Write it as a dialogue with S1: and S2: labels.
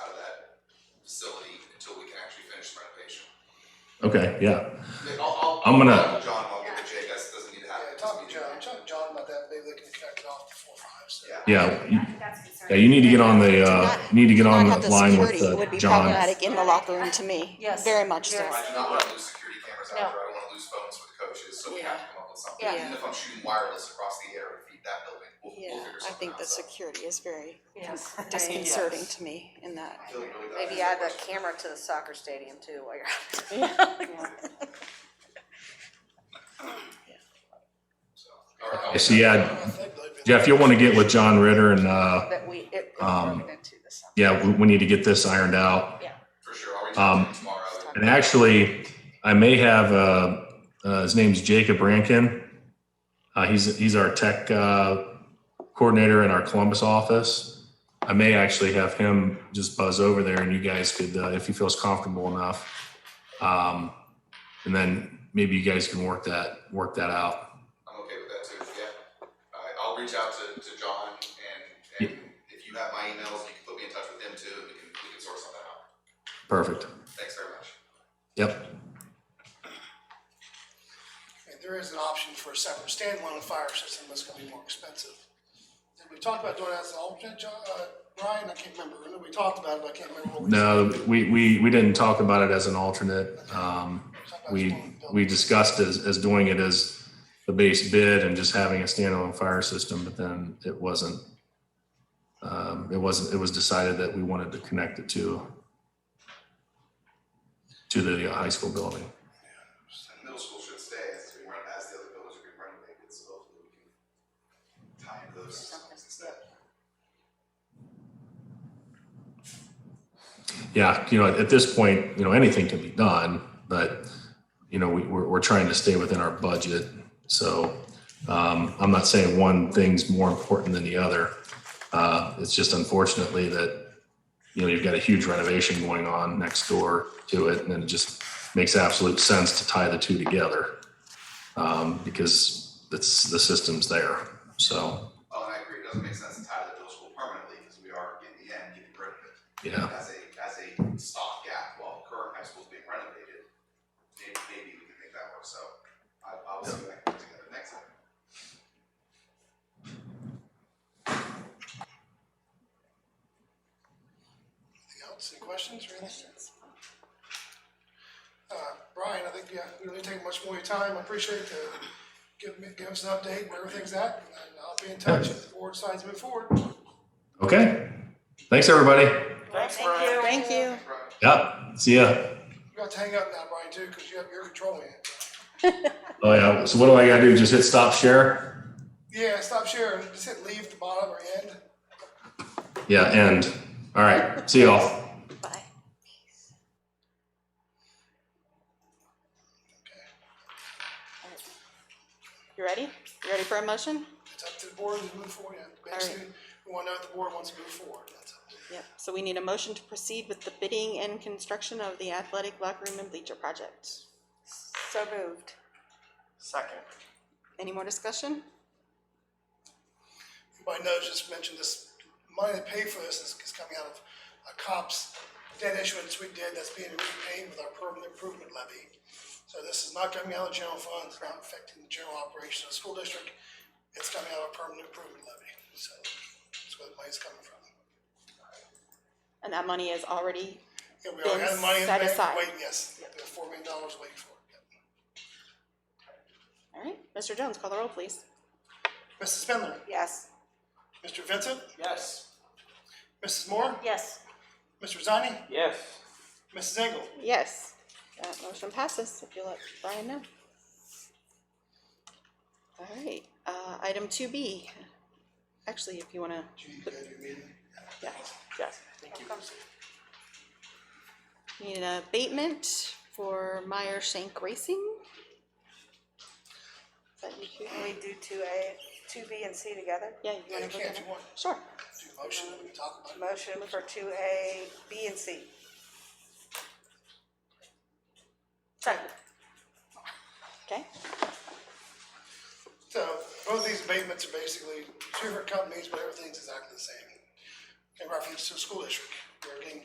S1: facility until we can actually finish the renovation.
S2: Okay, yeah.
S1: Then I'll, I'll.
S2: I'm gonna-
S1: I'll talk to John, I'll get with Jay, that's, doesn't need to happen.
S3: Yeah, talk to John, talk to John about that, maybe they can connect it off before five, so.
S1: Yeah.
S2: Yeah, you,
S4: I think that's
S2: yeah,
S4: concerning.
S2: you need to get on the, uh, you need to get on
S5: Not have
S2: the
S5: the
S2: line with,
S5: security
S2: uh,
S5: would be
S2: John.
S5: problematic in the locker room to me.
S6: Yes.
S5: Very much so.
S6: Yes.
S1: I do not wanna lose security cameras out
S6: No.
S1: there, I don't wanna lose phones with the coaches, so we
S6: Yeah.
S1: have to come up with something,
S6: Yeah.
S1: even if I'm shooting wireless across the air and feed that building, we'll,
S5: Yeah,
S1: we'll figure
S5: I
S1: something
S5: think
S1: out,
S5: the
S1: so.
S5: security is very
S6: Yes.
S5: disconcerting to me in that.
S1: I feel really bad.
S7: Maybe add a camera to the soccer stadium too while you're.
S1: So, all right, I'll-
S2: So yeah, Jeff, you'll want to get with John Ritter and, uh,
S7: That we, it,
S2: Um,
S7: we're into this.
S2: yeah, we, we need to get this ironed out.
S1: For sure, I'll reach
S2: Um,
S1: out to you tomorrow.
S2: And actually, I may have, uh, uh, his name's Jacob Rankin. Uh, he's, he's our tech, uh, coordinator in our Columbus office. I may actually have him just buzz over there and you guys could, uh, if he feels comfortable enough. Um, and then maybe you guys can work that, work that out.
S1: I'm okay with that too, yeah. All right, I'll reach out to, to John and, and if you have my emails, you can put me in touch with him too, and we can, we can sort something out.
S2: Perfect.
S1: Thanks very much.
S2: Yep.
S3: And there is an option for a separate standalone fire system that's gonna be more expensive. Did we talk about doing that as an alternate, John, uh, Brian, I can't remember, I know we talked about it, but I can't remember what we.
S2: No, we, we, we didn't talk about it as an alternate. Um,
S3: talked about
S2: we,
S3: doing building.
S2: we discussed as, as doing it as the base bid and just having a standalone fire system, but then it wasn't. Um, it wasn't, it was decided that we wanted to connect it to to the high school building.
S1: And middle school should stay as we run, as the other buildings are being renovated, so hopefully we can tie into those systems instead.
S2: Yeah, you know, at this point, you know, anything can be done, but, you know, we, we're, we're trying to stay within our budget. So, um, I'm not saying one thing's more important than the other. Uh, it's just unfortunately that, you know, you've got a huge renovation going on next door to it, and it just makes absolute sense to tie the two together. Um, because it's, the system's there, so,
S1: Oh, and I agree, it doesn't make sense to tie the middle school permanently, because we are, in the end, getting rid of it.
S2: yeah.
S1: As a, as a stopgap while current high school's being renovated, maybe, maybe we can make that work, so I, I'll see what I can put together next time.
S3: Anything else, any questions or anything? Uh, Brian, I think, yeah, we don't need to take much more of your time, I appreciate the, give me, give us an update where everything's at, and I'll be in touch if the board decides to move forward.
S2: Okay, thanks, everybody.
S6: Thanks, Brian.
S5: Thank you.
S2: Yep, see ya.
S3: You got to hang up now, Brian, too, because you have, you're controlling it.
S2: Oh yeah. So what do I gotta do? Just hit stop share?
S3: Yeah, stop sharing, just hit leave at the bottom or end.
S2: Yeah, end. All right. See y'all.
S5: Bye. You ready? You ready for a motion?
S3: It's up to the board to move forward, and basically, we want to know if the board wants to move forward, that's all.
S5: Yep. So we need a motion to proceed with the bidding and construction of the athletic locker room and bleacher project.
S7: So moved.
S6: Second.
S5: Any more discussion?
S3: Everybody knows, just mentioned this, money to pay for this is, is coming out of a COPS debt issuance we did that's being repaid with our permanent improvement levy. So this is not coming out of the general fund, it's not affecting the general operation of the school district, it's coming out of permanent improvement levy, so that's where the money's coming from.
S5: And that money is already,
S3: Yeah, we already had the money in the
S5: Set
S3: bank,
S5: aside.
S3: waiting, yes, there's four million dollars waiting for it.
S5: all right. Mr. Jones, call the roll, please.
S3: Mrs. Spindler,
S7: Yes.
S3: Mr. Vincent,
S6: Yes.
S3: Mrs. Moore,
S7: Yes.
S3: Mr. Zani,
S6: Yes.
S3: Mrs. Engel.
S5: Yes. That motion passes if you let Brian know. All right. Uh, item two B. Actually, if you wanna, yeah.
S6: Yes.
S5: We Need an abatement for Meyer Shank Racing? Is that you two?
S7: Can we do two A, two B and C together?
S5: Yeah, you
S3: Yeah,
S5: wanna
S3: you
S5: go
S3: can if
S5: get
S3: you
S5: it?
S3: want.
S5: Sure.
S3: Do a motion, we can talk about it.
S7: Motion for two A, B and C.
S5: Second. Okay,
S3: So both these abatements are basically two different companies, but everything's exactly the same. In reference to the school district, they're getting